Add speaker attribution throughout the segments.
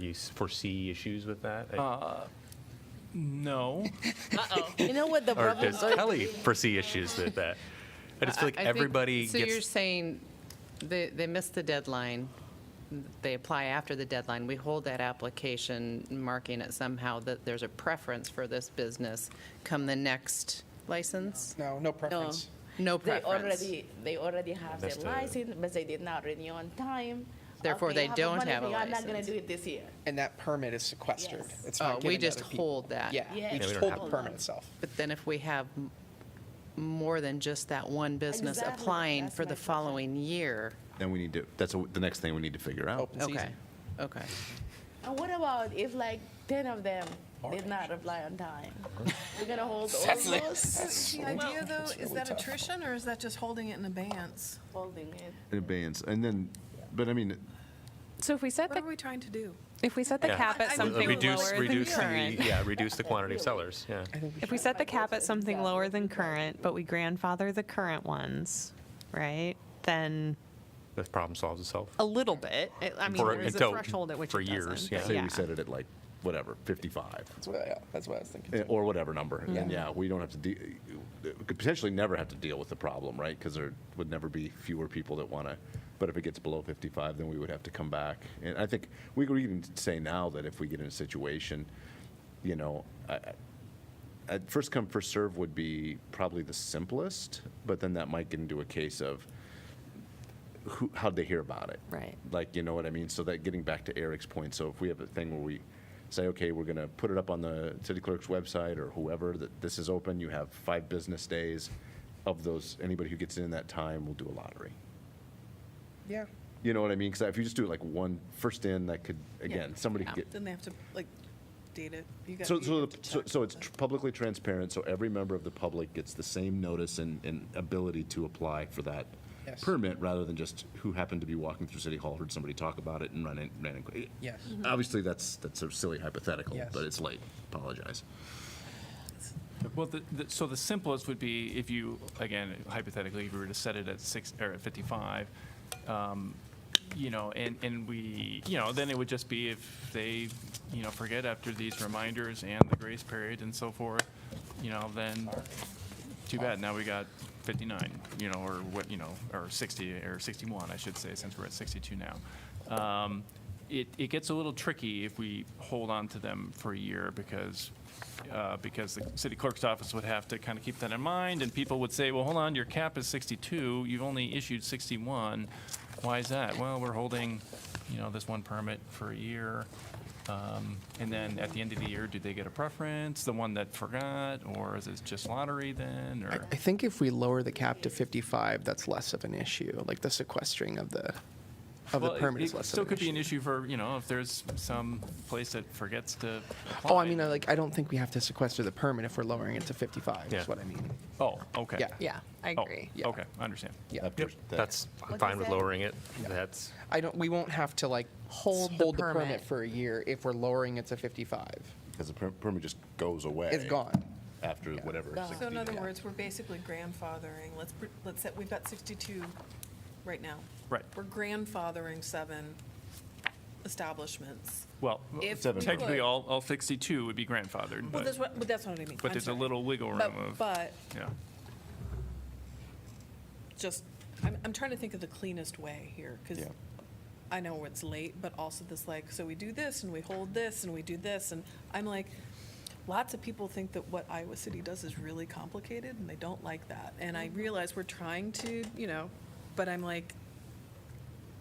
Speaker 1: You s- foresee issues with that?
Speaker 2: No.
Speaker 3: You know what the
Speaker 1: Or
Speaker 3: problem
Speaker 1: does
Speaker 3: is?
Speaker 1: Kelly foresee issues with that? I just feel like
Speaker 4: I- I think-
Speaker 1: everybody
Speaker 4: So you're
Speaker 1: gets,
Speaker 4: saying they, they missed the deadline, they apply after the deadline, we hold that application, marking it somehow that there's a preference for this business come the next license?
Speaker 5: No, no preference.
Speaker 4: No
Speaker 3: They
Speaker 4: preference?
Speaker 3: already, they already have their
Speaker 1: That's the-
Speaker 3: license, but they did not renew on time.
Speaker 4: Therefore,
Speaker 3: Okay,
Speaker 4: they
Speaker 3: I the
Speaker 4: don't
Speaker 3: money
Speaker 4: have a
Speaker 3: for you. I'm not gonna
Speaker 4: license.
Speaker 3: do it this year.
Speaker 5: And that permit is sequestered.
Speaker 3: Yes.
Speaker 5: It's
Speaker 4: Oh,
Speaker 5: not
Speaker 4: we
Speaker 5: given to
Speaker 4: just
Speaker 5: other people.
Speaker 4: hold that?
Speaker 5: Yeah,
Speaker 3: Yeah,
Speaker 5: we just
Speaker 1: we don't
Speaker 5: hold
Speaker 1: have
Speaker 5: the
Speaker 1: to.
Speaker 5: permit itself.
Speaker 4: But then if we have m- more than just that one business
Speaker 3: Exactly,
Speaker 4: applying
Speaker 3: that's
Speaker 4: for
Speaker 3: my
Speaker 4: the
Speaker 3: question.
Speaker 4: following year?
Speaker 6: Then we need to, that's the next thing we need to figure out.
Speaker 5: Open
Speaker 4: Okay,
Speaker 5: season.
Speaker 4: okay.
Speaker 3: And what about if like ten of them did not apply on time? We're gonna hold all of those,
Speaker 7: The idea, though, is that attrition, or is that just holding it in abeyance?
Speaker 3: holding it.
Speaker 6: In abeyance, and then, but I mean,
Speaker 8: So if we set
Speaker 7: What
Speaker 8: the,
Speaker 7: are we trying to do?
Speaker 8: if we set the
Speaker 1: Yeah. Uh,
Speaker 8: cap at
Speaker 7: I- I
Speaker 8: something
Speaker 1: reduce,
Speaker 8: lower than
Speaker 1: reduce the,
Speaker 8: current,
Speaker 1: yeah, reduce the quantity of sellers, yeah.
Speaker 8: if we set the cap at something lower than current, but we grandfather the current ones, right? Then
Speaker 1: The problem solves itself.
Speaker 8: a little bit, it- I mean,
Speaker 1: For-
Speaker 8: there's a
Speaker 1: until-
Speaker 8: threshold at which
Speaker 1: for
Speaker 8: it
Speaker 1: years,
Speaker 8: doesn't.
Speaker 1: yeah.
Speaker 8: but
Speaker 6: say we set it at like, whatever, 55,
Speaker 5: That's what, yeah, that's what I was thinking.
Speaker 6: eh,
Speaker 5: too.
Speaker 6: or whatever number. And yeah, we don't have to, de- we could potentially never have to deal with the problem, right? Because there would never be fewer people that want to, but if it gets below 55, then we would have to come back. And I think, we could even say now that if we get in a situation, you know, I- I- uh, first come, first serve would be probably the simplest, but then that might get into a case of who, how'd they hear about it?
Speaker 8: Right.
Speaker 6: Like, you know what I mean? So that getting back to Eric's point, so if we have a thing where we say, okay, we're going to put it up on the city clerk's website or whoever, that this is open, you have five business days. Of those, anybody who gets in that time will do a lottery.
Speaker 5: Yeah.
Speaker 6: You know what I mean? Because if you just do it like one first in, that could, again, somebody could get
Speaker 7: Then they have to, like, date it. You got-
Speaker 6: So,
Speaker 7: you
Speaker 6: so,
Speaker 7: have
Speaker 6: the-
Speaker 7: to
Speaker 6: so,
Speaker 7: check
Speaker 6: so it's
Speaker 7: the-
Speaker 6: tr- publicly transparent, so every member of the public gets the same notice and, and ability to apply for that
Speaker 5: Yes.
Speaker 6: permit, rather than just who happened to be walking through City Hall, heard somebody talk about it and ran in, ran in.
Speaker 5: Yes.
Speaker 6: Obviously, that's, that's a silly hypothetical,
Speaker 5: Yes.
Speaker 6: but it's late, apologize.
Speaker 2: Well, the, the, so the simplest would be if you, again, hypothetically, if we were to set it at six, or at 55, um, you know, and, and we, you know, then it would just be if they, you know, forget after these reminders and the grace period and so forth, you know, then too bad, now we got 59, you know, or what, you know, or 60, or 61, I should say, since we're at 62 now. Um, It, it gets a little tricky if we hold on to them for a year, because, uh, because the city clerk's office would have to kind of keep that in mind, and people would say, well, hold on, your cap is 62, you've only issued 61, why is that? Well, we're holding, you know, this one permit for a year, um, And then at the end of the year, do they get a preference, the one that forgot, or is it just lottery then,
Speaker 9: I,
Speaker 2: or?
Speaker 9: I think if we lower the cap to 55, that's less of an issue. Like the sequestering of the of
Speaker 2: Well,
Speaker 9: the
Speaker 2: it-
Speaker 9: permit is
Speaker 2: it
Speaker 9: less
Speaker 2: Still
Speaker 9: of an
Speaker 2: could be
Speaker 9: issue.
Speaker 2: an issue for, you know, if there's some place that forgets
Speaker 9: Oh,
Speaker 2: to
Speaker 9: I
Speaker 2: apply.
Speaker 9: mean, I, like I don't think we have to sequester the permit if we're lowering it to 55.
Speaker 1: Yeah.
Speaker 9: Is what I mean.
Speaker 2: Oh, okay.
Speaker 9: Yeah.
Speaker 8: Yeah, I
Speaker 2: Oh,
Speaker 8: agree.
Speaker 9: Yeah.
Speaker 2: Okay, I understand.
Speaker 9: Yeah.
Speaker 6: That pers- that-
Speaker 1: That's, I'm
Speaker 3: What's
Speaker 1: fine
Speaker 3: that?
Speaker 1: with lowering it. That's,
Speaker 9: I don't. We won't have to like
Speaker 8: Hold the
Speaker 9: hold the
Speaker 8: permit.
Speaker 9: permit for a year if we're lowering it to 55.
Speaker 6: Because the per- permit just goes away.
Speaker 9: It's gone.
Speaker 6: After whatever.
Speaker 3: Gone.
Speaker 6: 60
Speaker 7: So in other
Speaker 6: days.
Speaker 7: words, we're basically grandfathering, let's, pr- let's set, we've got 62 right now.
Speaker 2: Right.
Speaker 7: We're grandfathering seven establishments.
Speaker 2: Well, uh,
Speaker 7: If we
Speaker 2: technically,
Speaker 7: could-
Speaker 2: all, all 62 would be grandfathered,
Speaker 7: Well, that's
Speaker 2: Mm-hmm. but,
Speaker 7: what, but that's what I mean.
Speaker 2: but
Speaker 7: I'm
Speaker 2: there's a
Speaker 7: sorry.
Speaker 2: little wiggle room
Speaker 7: But-
Speaker 2: of,
Speaker 7: But
Speaker 2: yeah.
Speaker 7: just, I'm, I'm trying to think of the cleanest way here, because I know it's late, but also this like, so we do this and we hold this and we do this, and I'm like, lots of people think that what Iowa City does is really complicated, and they don't like that. And I realize we're trying to, you know, but I'm like,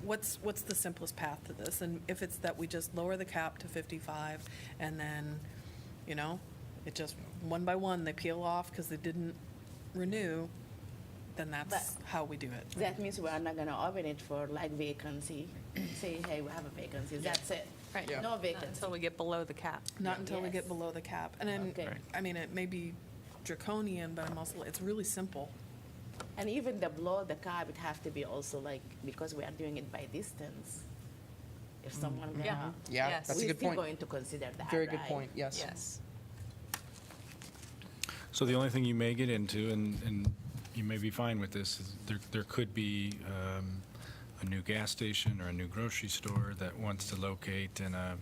Speaker 7: what's, what's the simplest path to this? And if it's that we just lower the cap to fifty-five, and then, you know, it just, one by one, they peel off because they didn't renew, then that's
Speaker 3: But-
Speaker 7: how we do it.
Speaker 3: That means we are not gonna open it for like vacancy, say, hey, we have a vacancy, that's it.
Speaker 8: Right. Yeah.
Speaker 3: No vacancy.
Speaker 8: Until we get below the cap.
Speaker 7: Not until we
Speaker 3: Yes.
Speaker 7: get below the cap. And I'm,
Speaker 3: Okay. Right.
Speaker 7: I mean, it may be draconian, but I'm also, it's really simple.
Speaker 3: And even the blow, the car would have to be also like, because we are doing it by distance. If someone gonna.
Speaker 9: Yeah,
Speaker 8: Yes.
Speaker 9: that's a
Speaker 3: We're
Speaker 9: good
Speaker 3: still
Speaker 9: point.
Speaker 3: going to consider that,
Speaker 9: Very good
Speaker 3: right?
Speaker 9: point. Yes.
Speaker 8: Yes.
Speaker 10: So the only thing you may get into, and, and you may be fine with this, is there, there could be um, a new gas station or a new grocery store that wants to locate in a